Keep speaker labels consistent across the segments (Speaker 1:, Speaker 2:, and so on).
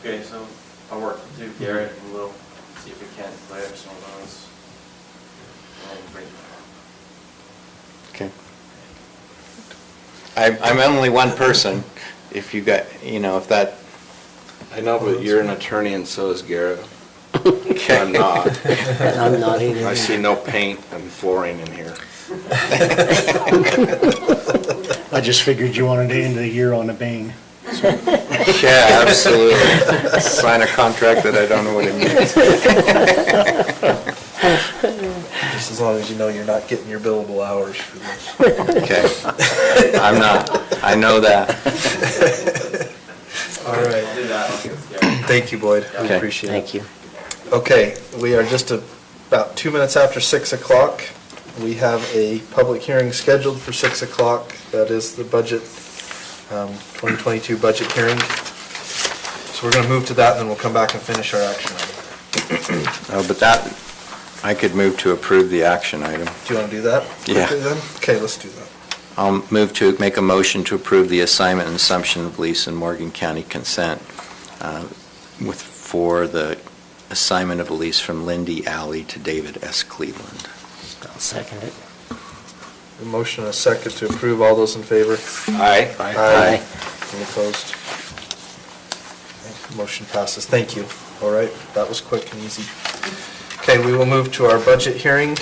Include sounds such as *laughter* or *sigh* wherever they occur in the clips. Speaker 1: Okay, so I'll work through Garrett and we'll see if we can play up some of those. And then bring
Speaker 2: Okay. I'm, I'm only one person, if you got, you know, if that,
Speaker 3: I know, but you're an attorney and so is Garrett.
Speaker 2: Okay.
Speaker 3: I'm
Speaker 2: *laughs*
Speaker 3: not.
Speaker 4: And *laughs* I'm not either.
Speaker 3: I see no paint and flooring in
Speaker 5: *laughs*
Speaker 3: here.
Speaker 4: *laughs* I just figured you wanted to end the year on a bang.
Speaker 2: *laughs* yeah, absolutely. Sign a contract that I don't know what it
Speaker 4: *laughs*
Speaker 2: means.
Speaker 5: Just as long as you know you're not getting your billable hours for this.
Speaker 2: Okay.
Speaker 5: *laughs*
Speaker 2: I'm not, I know that.
Speaker 5: All
Speaker 1: I'll
Speaker 5: right.
Speaker 1: do that, I'll get with Garrett.
Speaker 5: Thank you, Boyd. We
Speaker 2: Okay.
Speaker 5: appreciate it.
Speaker 6: Thank you.
Speaker 5: Okay, we are just a- about two minutes after 6 o'clock. We have a public hearing scheduled for 6 o'clock. That is the budget, um, 2022 budget hearing. So we're going to move to that, and then we'll come back and finish our action item.
Speaker 2: Oh, but that, I could move to approve the action item.
Speaker 5: Do you want to do that?
Speaker 2: Yeah.
Speaker 5: quickly then? Okay, let's do that.
Speaker 2: I'll move to make a motion to approve the assignment and assumption of lease in Morgan County consent uh, with, for the assignment of a lease from Lindy Alley to David S. Cleveland.
Speaker 6: I'll second it.
Speaker 5: A motion and a second to approve. All those in favor?
Speaker 3: Aye.
Speaker 6: Aye.
Speaker 5: Any opposed? Motion passes. Thank you. All right, that was quick and easy. Okay, we will move to our budget hearing.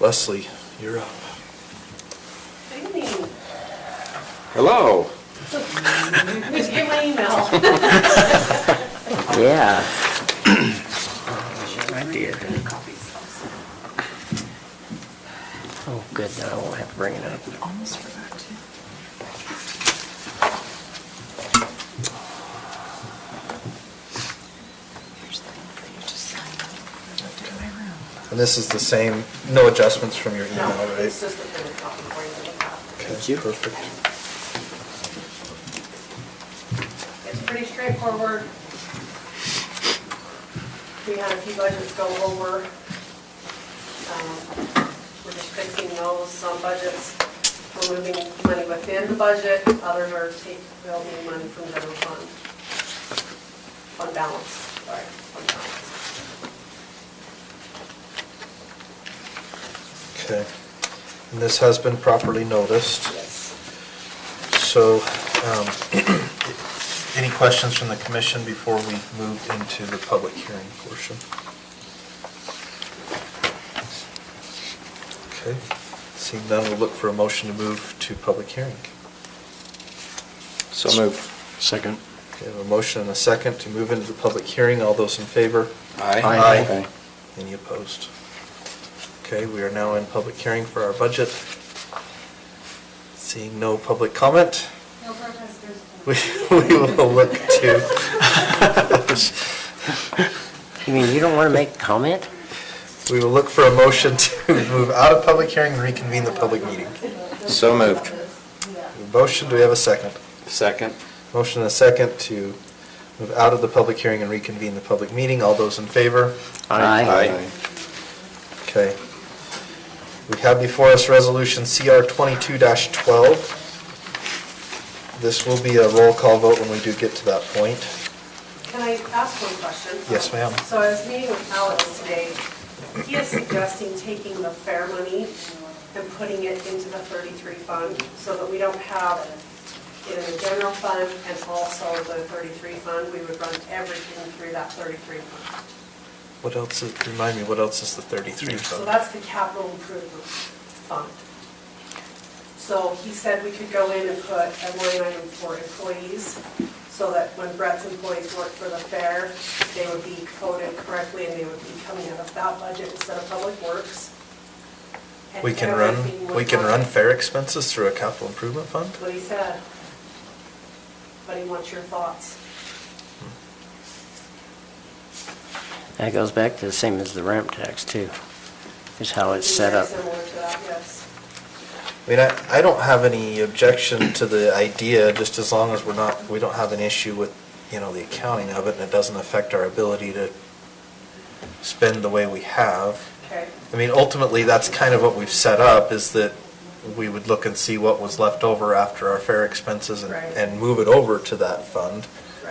Speaker 5: Leslie, you're up.
Speaker 7: Did
Speaker 3: Hello.
Speaker 7: you get my email?
Speaker 6: Yeah. Sure I did. Oh, good, then I won't have to bring it up.
Speaker 7: Almost forgot to. Here's the thing for you to sign. In my room.
Speaker 5: And this is the same, no adjustments from your email,
Speaker 7: No,
Speaker 5: right?
Speaker 7: it's just a little copy for you to look at.
Speaker 5: Thank you. Perfect.
Speaker 7: It's pretty straightforward. We had a few budgets go over. Um, We're just fixing those, some budgets, we're moving money within the budget, others are taking, they'll move money from general fund. Fund balance, sorry, fund balance.
Speaker 5: Okay. And this has been properly noticed.
Speaker 7: Yes.
Speaker 5: So, um, *clears throat* any questions from the commission before we move into the public hearing portion? Okay, seeing none, we'll look for a motion to move to public hearing.
Speaker 2: So move.
Speaker 4: Second.
Speaker 5: We have a motion and a second to move into the public hearing. All those in favor?
Speaker 3: Aye.
Speaker 5: Aye. Any opposed? Okay, we are now in public hearing for our budget. Seeing no public comment,
Speaker 7: No protesters.
Speaker 5: we *laughs* we will look to
Speaker 6: You mean you don't want to make a comment?
Speaker 5: We will look for a motion to move out of public hearing and reconvene the public meeting.
Speaker 2: So moved.
Speaker 5: Motion, do we have a second?
Speaker 3: Second.
Speaker 5: Motion and a second to move out of the public hearing and reconvene the public meeting. All those in favor?
Speaker 3: Aye.
Speaker 5: Okay. We have before us Resolution CR 22-12. This will be a roll call vote when we do get to that point.
Speaker 7: Can I ask one question?
Speaker 5: Yes, ma'am.
Speaker 7: So I was meeting with Alex today. He is suggesting taking the fair money and putting it into the 33 fund so that we don't have it in the general fund and also the 33 fund. We would run everything through that 33 fund.
Speaker 5: What else, is- remind me, what else is the 33
Speaker 7: So
Speaker 5: vote?
Speaker 7: that's the capital improvement fund. So he said we could go in and put a line item for employees, so that when Brett's employees work for the fair, they would be coded correctly and they would be coming out of that budget instead of Public Works. And
Speaker 5: We can run,
Speaker 7: everything would
Speaker 5: we can
Speaker 7: come-
Speaker 5: run fair expenses through a capital improvement fund?
Speaker 7: What he said. But he wants your thoughts.
Speaker 6: That goes back to the same as the ramp tax too, is how it's set
Speaker 7: Very
Speaker 6: up.
Speaker 7: Similar to that, yes.
Speaker 5: I mean, I, I don't have any objection to the idea, just as long as we're not, we don't have an issue with, you know, the accounting of it, and it doesn't affect our ability to spend the way we have.
Speaker 7: Okay.
Speaker 5: I mean, ultimately, that's kind of what we've set up, is that we would look and see what was left over after our fair expenses and,
Speaker 7: Right.
Speaker 5: and move it over to that fund.